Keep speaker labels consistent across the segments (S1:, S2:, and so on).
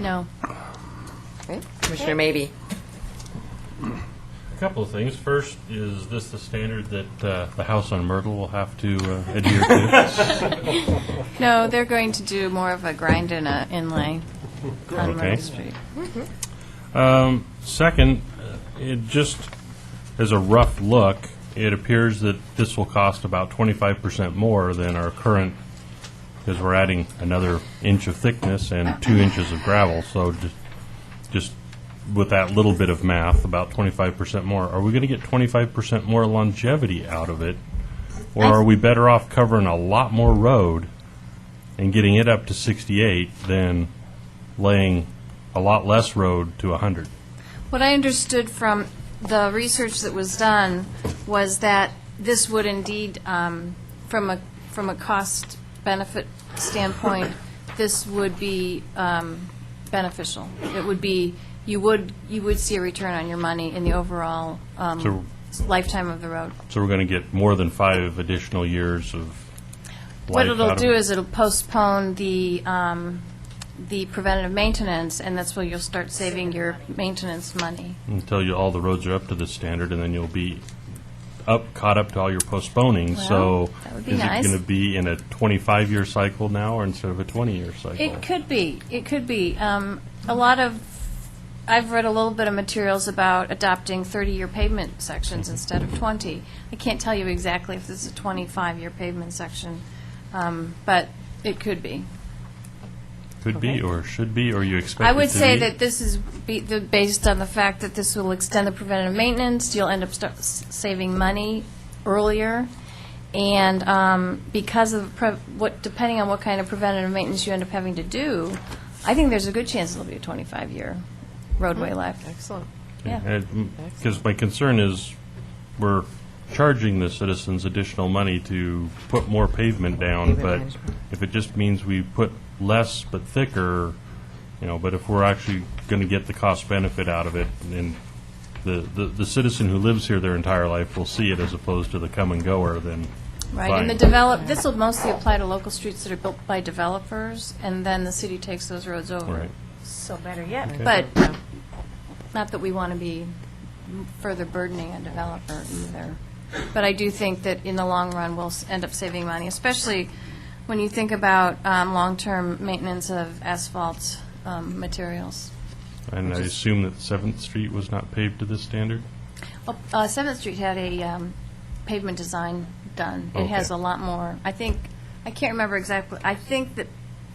S1: No.
S2: Right?
S1: Commissioner Maybe.
S3: A couple of things. First, is this the standard that uh, the house on Myrtle will have to uh, adhere to?
S1: No, they're going to do more of a grind and a inlay on Myrtle
S3: Okay.
S1: Street.
S3: Um, Second, uh, it just, as a rough look, it appears that this will cost about 25% more than our current, because we're adding another inch of thickness and two inches of gravel, so ju- just with that little bit of math, about 25% more. Are we going to get 25% more longevity out of it? Or are we better off covering a lot more road and getting it up to 68 than laying a lot less road to 100?
S1: What I understood from the research that was done was that this would indeed, um, from a, from a cost benefit standpoint, this would be um, beneficial. It would be, you would, you would see a return on your money in the overall um,
S3: So-
S1: lifetime of the road.
S3: So we're going to get more than five additional years of
S1: What
S3: life
S1: it'll
S3: out of
S1: do
S3: it.
S1: is it'll postpone the, um, the preventative maintenance, and that's where you'll start saving your maintenance money.
S3: Until you, all the roads are up to this standard, and then you'll be up, caught up to all your postponing, so.
S1: Well, that would be
S3: Is
S1: nice.
S3: it going to be in a 25-year cycle now, or instead of a 20-year cycle?
S1: It could be, it could be. Um, A lot of, I've read a little bit of materials about adopting 30-year pavement sections instead of 20. I can't tell you exactly if this is a 25-year pavement section, um, but it could be.
S3: Could be, or should be, or you expect
S1: I
S3: it
S1: would
S3: to
S1: say
S3: be.
S1: that this is be- the- based on the fact that this will extend the preventative maintenance, you'll end up st- s- saving money earlier, and um, because of, pre- what, depending on what kind of preventative maintenance you end up having to do, I think there's a good chance it'll be a 25-year roadway life.
S2: Excellent.
S1: yeah.
S3: Because my concern is, we're charging the citizens additional money to put more pavement down,
S2: Pavement
S3: but
S2: management.
S3: if it just means we put less but thicker, you know, but if we're actually going to get the cost benefit out of it, then the, the the citizen who lives here their entire life will see it as opposed to the come and goer, then.
S1: Right, and the
S3: fine.
S1: develop, this will mostly apply to local streets that are built by developers, and then the city takes those roads over.
S3: Right.
S4: So better yet.
S1: But not that we want to be further burdening a developer either. But I do think that in the long run, we'll s- end up saving money, especially when you think about um, long-term maintenance of asphalt um, materials.
S3: And I assume that Seventh Street was not paved to this standard?
S1: Well, uh, Seventh Street had a um, pavement design done. It has
S3: Okay.
S1: a lot more, I think, I can't remember exactly, I think that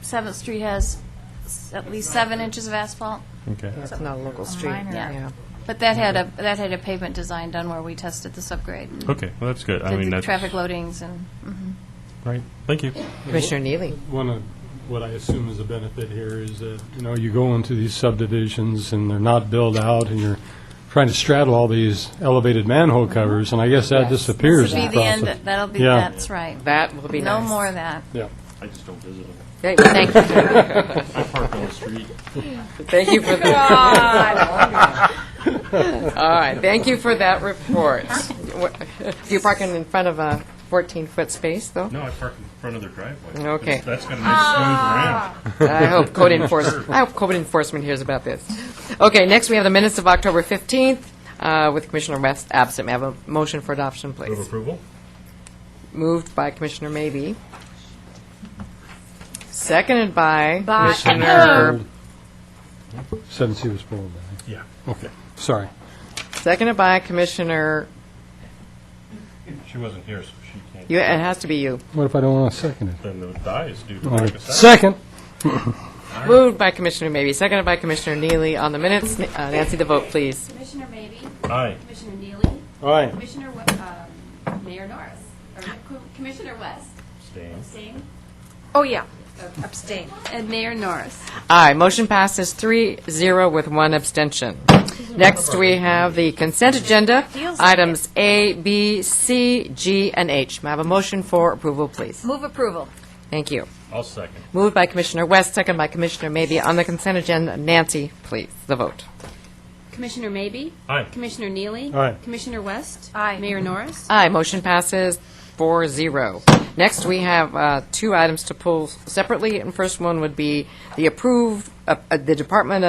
S1: Seventh Street has s- at least seven inches of asphalt.
S3: Okay.
S2: That's not a local street.
S4: minor.
S1: Yeah. But that had a, that had a pavement design done where we tested the subgrade.
S3: Okay, well, that's good. I
S1: Did
S3: mean,
S1: the
S3: that's.
S1: traffic loadings and, mhm.
S3: Right, thank you.
S2: Commissioner Neely.
S5: One of what I assume is a benefit here is that, you know, you go into these subdivisions and they're not built out and you're trying to straddle all these elevated manhole covers, and I guess that
S2: Yes.
S5: disappears
S1: This'll
S5: in
S1: be
S5: the
S1: the end,
S5: process.
S1: that'll be,
S5: Yeah.
S1: that's right.
S2: That will be
S1: No
S2: nice.
S1: more of that.
S5: Yeah.
S3: I just don't visit them.
S2: Great, thank you.
S3: I park on the street.
S2: Thank you for the. All right, thank you for that report. What- Do you park in front of a 14-foot space, though?
S3: No, I park in front of their driveway.
S2: Okay.
S3: That's got a nice smooth ramp.
S2: I hope code enforcement, I hope code enforcement hears about this. Okay, next we have the minutes of October 15th uh, with Commissioner West absent. May I have a motion for adoption,
S3: Move
S2: please?
S3: approval?
S2: Moved by Commissioner Maybe. Seconded by
S1: By-
S2: Commissioner,
S5: Since he was pulled back.
S3: Yeah.
S5: Okay, sorry.
S2: seconded by Commissioner,
S3: She wasn't here, so she can't.
S2: you, it has to be you.
S5: What if I don't want to second it?
S3: Then the die is due to
S5: All
S3: lack
S5: right.
S3: of second.
S5: Second.
S2: Moved by Commissioner Maybe, seconded by Commissioner Neely on the minutes. Uh, Nancy, the vote, please.
S6: Commissioner Maybe,
S3: Aye.
S6: Commissioner Neely,
S5: All right.
S6: Commissioner, We- um, Mayor Norris, or Co- Commissioner West,
S3: Abstain.
S6: abstain,
S4: Oh, yeah. Abstain.
S6: and Mayor Norris.
S2: Aye, motion passes three zero with one abstention. Next, we have the consent agenda, items A, B, C, G, and H. May I have a motion for approval, please?
S4: Move approval.
S2: Thank you.
S3: I'll second.
S2: Moved by Commissioner West, second by Commissioner Maybe on the consent agenda. Nancy, please, the vote.
S6: Commissioner Maybe,
S3: Aye.
S6: Commissioner Neely.
S5: Aye.
S6: Commissioner West.
S1: Aye.
S6: Mayor Norris.
S2: Aye, motion passes four zero. Next, we have uh, two items to pull separately, and first one would be the approved, uh, uh, the Department